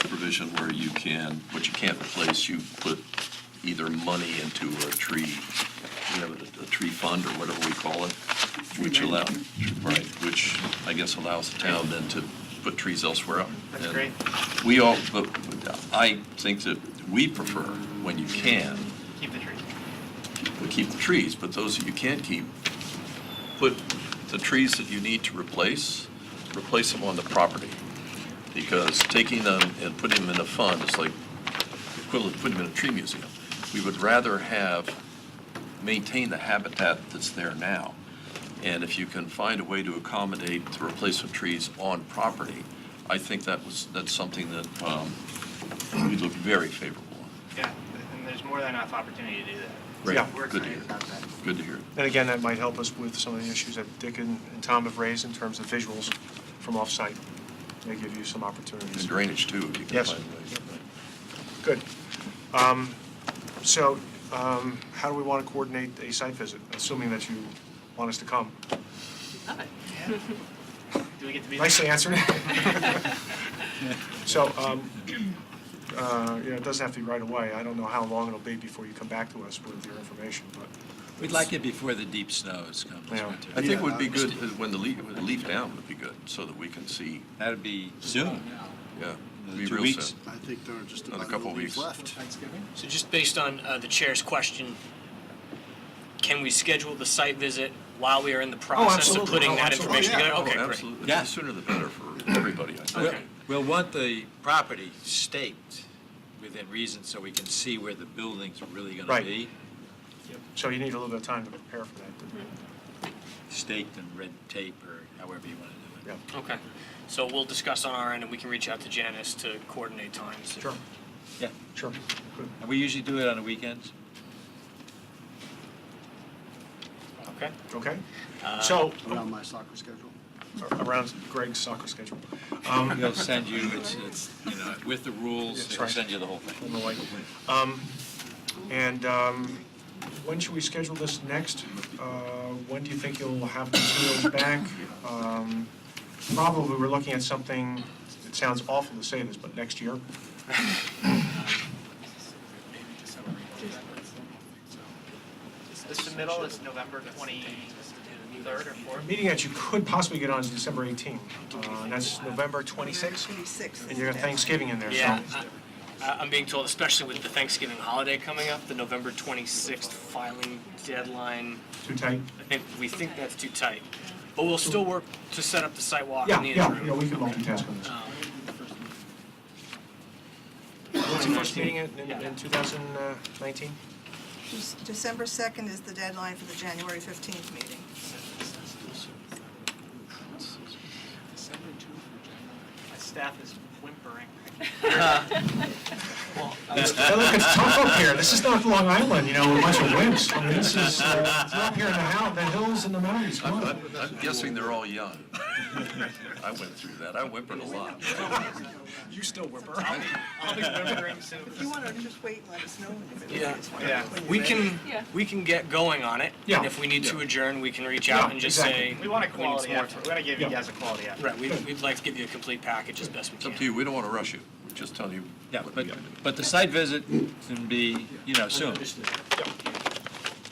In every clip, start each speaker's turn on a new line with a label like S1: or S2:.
S1: position where you can, what you can't replace, you put either money into a tree, you know, a, a tree fund or whatever we call it, which allow, right, which I guess allows the town then to put trees elsewhere.
S2: That's
S1: And
S2: great.
S1: We all, but I think that we prefer, when you can,
S2: Keep the tree.
S1: we keep the trees, but those that you can't keep, put the trees that you need to replace, replace them on the property. Because taking them and putting them in a fund is like equivalent to putting them in a tree museum. We would rather have, maintain the habitat that's there now. And if you can find a way to accommodate the replacement trees on property, I think that was, that's something that um, we look very favorable on.
S2: Yeah, and there's more than enough opportunity to do that.
S1: Right.
S2: So We're
S1: Good to
S2: excited
S1: hear.
S2: about that.
S1: Good to hear.
S3: And again, that might help us with some of the issues that Dick and and Tom have raised in terms of visuals from off-site. They give you some
S1: And
S3: opportunities.
S1: drainage too, if you can
S3: Yes.
S1: find ways.
S3: Good. Um, So um, how do we want to coordinate a site visit, assuming that you want us to come?
S2: Yeah. Do we get to be? there?
S3: Nicely answered. So, um, uh, you know, it doesn't have to be right away. I don't know how long it'll be before you come back to us with your information, but
S4: We'd like it before the deep snows come this
S3: Yeah.
S4: winter.
S1: I think it would be good, uh, when the leaf, when the leaf down would be good, so that we can see,
S4: That'd be
S5: Soon.
S1: yeah.
S4: Uh,
S1: be
S4: two
S1: real
S4: weeks.
S1: soon.
S5: I think there are just
S1: Another
S5: about
S1: couple
S5: no leaves
S1: weeks.
S5: left.
S6: So just based on uh, the chair's question, can we schedule the site visit while we are in the process of
S3: absolutely. Oh,
S6: putting that
S3: absolutely.
S6: information
S5: Oh, yeah.
S6: together? Okay,
S1: Oh,
S6: great.
S1: absolutely.
S4: Yeah.
S1: The sooner the better for everybody, I think.
S6: Okay.
S4: We'll want the property staked within reason so we can see where the building's really going
S3: Right.
S4: to be.
S3: so you need a little bit of time to prepare for that. but-
S4: Staked and red tape or however you want to do
S3: Yeah,
S4: it.
S6: Okay. So we'll discuss on our end, and we can reach out to Janice to coordinate times.
S3: sure,
S4: Yeah.
S3: sure. Good.
S4: And we usually do it on the weekends.
S6: Okay.
S3: Okay?
S6: Uh,
S3: So,
S5: Around my soccer schedule.
S3: around Greg's soccer schedule. Um,
S4: We'll send you, it's, it's, you know, with the rules,
S3: That's
S4: they'll
S3: right.
S4: send you the whole thing.
S3: on the way. Um, And um, when should we schedule this next? Uh, When do you think you'll have the materials back? Um, Probably, we're looking at something, it sounds awful to say this, but next year?
S2: The submittal is November twenty-third or
S3: A
S2: fourth.
S3: meeting that you could possibly get on is December 18th, uh, and that's November 26th, and you got Thanksgiving in there, so.
S6: Yeah. I- I'm being told, especially with the Thanksgiving holiday coming up, the November 26th filing deadline,
S3: Too tight?
S6: I think, we think that's too tight. But we'll still work to set up the site walk
S3: Yeah,
S6: in the interim.
S3: yeah, yeah, we can multitask on this.
S6: Um,
S3: What's the first meeting in
S6: Yeah.
S3: in uh, 2019?
S7: December 2nd is the deadline for the January 15th meeting.
S2: My staff is whimpering.
S3: Hey, Look, it's tough up here. This is not Long Island, you know, with a bunch of wimps. I mean, this is, uh, it's up here in the hou- the hills and the mountains. Come
S1: I'm,
S3: on.
S1: I'm- I'm guessing they're all young. I went through that, I whimpered a lot.
S2: You still whimper. I'll be whimpering soon.
S7: If you want to just wait and let us know. when you-
S6: Yeah.
S2: Yeah.
S6: We can,
S8: Yeah.
S6: we can get going on it.
S3: Yeah.
S6: And if we need to adjourn, we can reach
S3: Yeah,
S6: out and just say.
S2: We want a
S6: need
S2: quality
S6: some more
S2: effort. We want to give you guys a quality
S6: time.
S2: effort.
S6: Right, we'd, we'd like to give you a complete package as best we
S1: It's up
S6: can.
S1: to you, we don't want to rush you, we're just telling you
S4: Yeah,
S1: what we
S4: but,
S1: gotta do.
S4: but the site visit can be, you know, soon.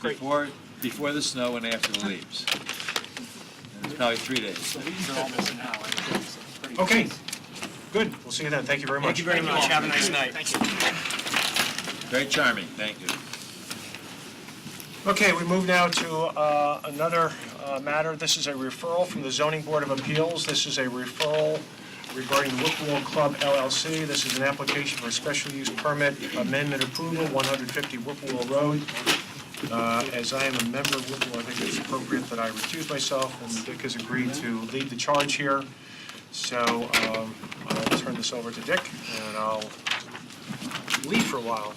S4: Before, before the snow and after the leaves. And It's probably three days.
S3: Okay, good. We'll see you then. Thank you very much.
S6: Thank you very much. Have a nice night. Thank you.
S4: Very charming, thank you.
S3: Okay, we move now to uh, another uh, matter. This is a referral from the Zoning Board of Appeals. This is a referral regarding Whipple Club LLC. This is an application for a special use permit amendment approval, 150 Whipple Road. Uh, As I am a member of Whipple, I think it's appropriate that I recuse myself, and Dick has agreed to lead the charge here. So um, I'll turn this over to Dick, and I'll leave for a while,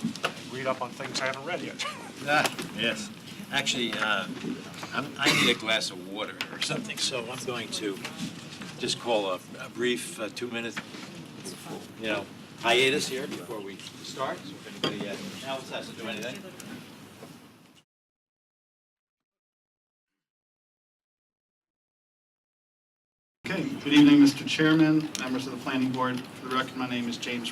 S3: read up on things I haven't read yet.
S4: Ah, Yes. Actually, uh, I'm- I need a glass of water or something, so I'm going to just call a a brief uh, two-minute, you know, hiatus here before we start, so if anybody uh, else has to do anything.
S5: Okay, good evening, Mr. Chairman, members of the planning board. For the record, my name is James